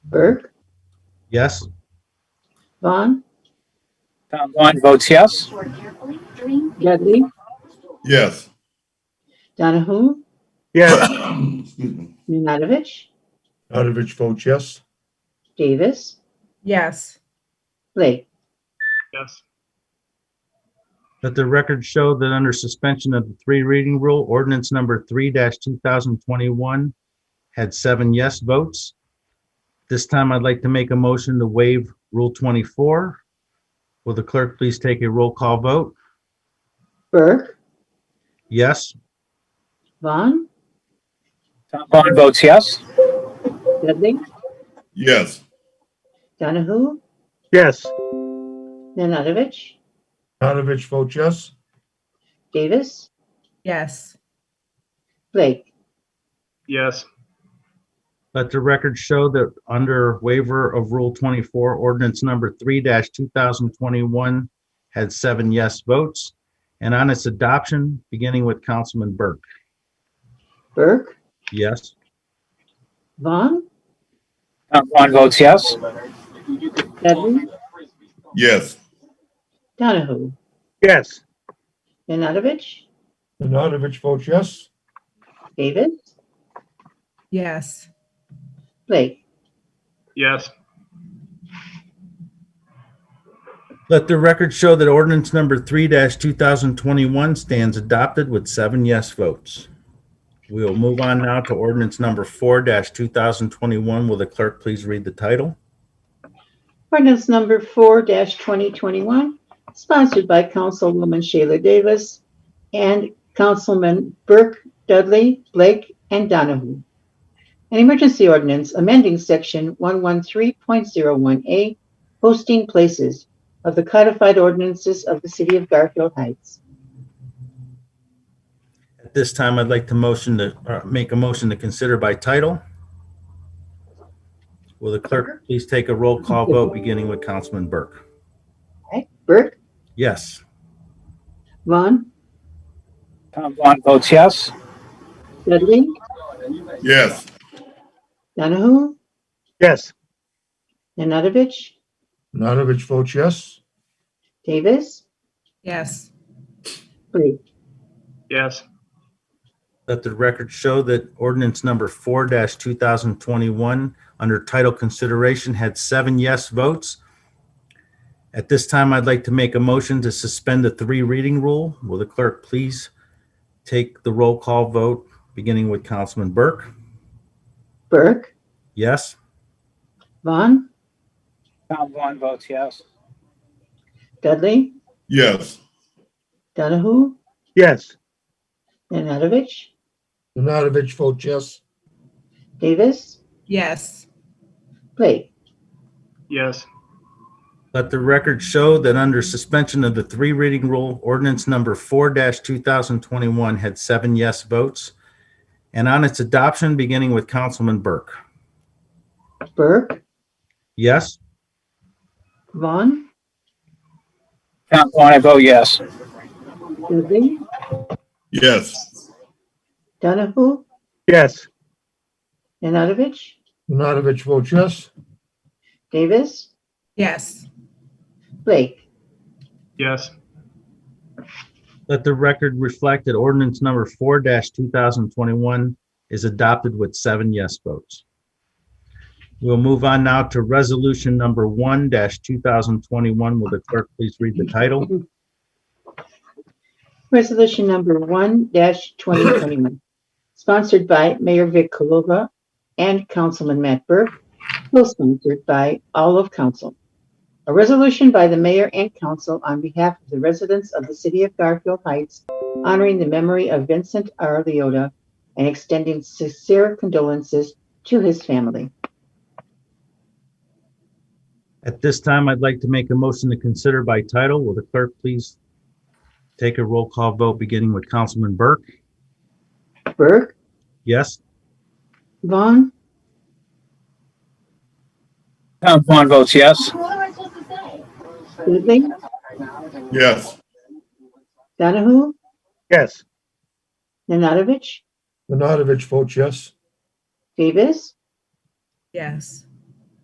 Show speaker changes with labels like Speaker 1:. Speaker 1: Berg,
Speaker 2: Yes.
Speaker 1: Vaughn,
Speaker 3: Tom Vaughn votes yes.
Speaker 1: Dudley,
Speaker 4: Yes.
Speaker 1: Donahue,
Speaker 5: yes,
Speaker 4: Excuse me.
Speaker 1: Nanadovich,
Speaker 4: Nanavich votes yes.
Speaker 1: Davis,
Speaker 6: yes,
Speaker 1: Blake.
Speaker 5: yes,
Speaker 2: Let the record show that under suspension of the three reading rule, ordinance number three two thousand twenty-one had seven yes votes. This time I'd like to make a motion to waive Rule twenty-four. Will the clerk please take a roll call vote?
Speaker 1: Berg,
Speaker 2: Yes,
Speaker 1: Vaughn,
Speaker 3: Tom Vaughn votes yes.
Speaker 1: Dudley,
Speaker 4: Yes.
Speaker 1: Donahue,
Speaker 5: yes,
Speaker 1: Nanadovich,
Speaker 4: Nanavich votes yes.
Speaker 1: Davis,
Speaker 6: yes,
Speaker 1: Blake.
Speaker 5: yes,
Speaker 2: let the record show that under waiver of Rule twenty-four, ordinance number three two thousand twenty-one had seven yes votes. And on its adoption, beginning with Councilman Burke.
Speaker 1: Berg,
Speaker 2: Yes.
Speaker 1: Vaughn,
Speaker 3: Tom Vaughn votes yes.
Speaker 1: Dudley,
Speaker 4: Yes.
Speaker 1: Donahue,
Speaker 5: yes,
Speaker 1: Nanadovich,
Speaker 4: Nanavich votes yes.
Speaker 1: Davis,
Speaker 6: yes,
Speaker 1: Blake.
Speaker 5: yes,
Speaker 2: Let the record show that ordinance number three two thousand twenty-one stands adopted with seven yes votes. We will move on now to ordinance number four two thousand twenty-one. Will the clerk please read the title?
Speaker 1: Ordinance number four twenty twenty-one, sponsored by Councilwoman Shayla Davis and Councilman Burke, Dudley, Blake, and Donahue. An emergency ordinance amending section one one three point zero one A, posting places of the codified ordinances of the city of Garfield Heights.
Speaker 2: At this time, I'd like to motion to, uh, make a motion to consider by title. Will the clerk please take a roll call vote, beginning with Councilman Burke?
Speaker 1: Burke,
Speaker 2: Yes.
Speaker 1: Vaughn,
Speaker 3: Tom Vaughn votes yes.
Speaker 1: Dudley,
Speaker 4: Yes.
Speaker 1: Donahue,
Speaker 5: yes,
Speaker 1: Nanadovich,
Speaker 4: Nanavich votes yes.
Speaker 1: Davis,
Speaker 6: yes,
Speaker 1: Blake.
Speaker 5: yes,
Speaker 2: Let the record show that ordinance number four two thousand twenty-one, under title consideration, had seven yes votes. At this time, I'd like to make a motion to suspend the three reading rule. Will the clerk please take the roll call vote, beginning with Councilman Burke?
Speaker 1: Burke,
Speaker 2: Yes?
Speaker 1: Vaughn,
Speaker 3: Tom Vaughn votes yes.
Speaker 1: Dudley,
Speaker 4: Yes.
Speaker 1: Donahue,
Speaker 5: yes,
Speaker 1: Nanadovich,
Speaker 4: Nanavich votes yes.
Speaker 1: Davis,
Speaker 6: yes,
Speaker 1: Blake.
Speaker 5: yes,
Speaker 2: Let the record show that under suspension of the three reading rule, ordinance number four two thousand twenty-one had seven yes votes. And on its adoption, beginning with Councilman Burke?
Speaker 1: Burke,
Speaker 2: Yes?
Speaker 1: Vaughn,
Speaker 3: Tom Vaughn, I vote yes.
Speaker 1: Dudley,
Speaker 4: Yes.
Speaker 1: Donahue,
Speaker 5: yes,
Speaker 1: Nanadovich,
Speaker 4: Nanavich votes yes.
Speaker 1: Davis,
Speaker 6: yes,
Speaker 1: Blake.
Speaker 5: yes,
Speaker 2: Let the record reflect that ordinance number four two thousand twenty-one is adopted with seven yes votes. We'll move on now to resolution number one two thousand twenty-one. Will the clerk please read the title?
Speaker 1: Resolution number one twenty twenty-one, sponsored by Mayor Vic Kalova and Councilman Matt Burke, co-sponsored by all of council. A resolution by the mayor and council on behalf of the residents of the city of Garfield Heights honoring the memory of Vincent R. Leota and extending sincere condolences to his family.
Speaker 2: At this time, I'd like to make a motion to consider by title. Will the clerk please take a roll call vote, beginning with Councilman Burke?
Speaker 1: Burke,
Speaker 2: Yes?
Speaker 1: Vaughn,
Speaker 3: Tom Vaughn votes yes.
Speaker 7: What am I supposed to say?
Speaker 1: Dudley,
Speaker 4: Yes.
Speaker 1: Donahue,
Speaker 5: yes,
Speaker 1: Nanadovich,
Speaker 4: Nanavich votes yes.
Speaker 1: Davis,
Speaker 6: yes,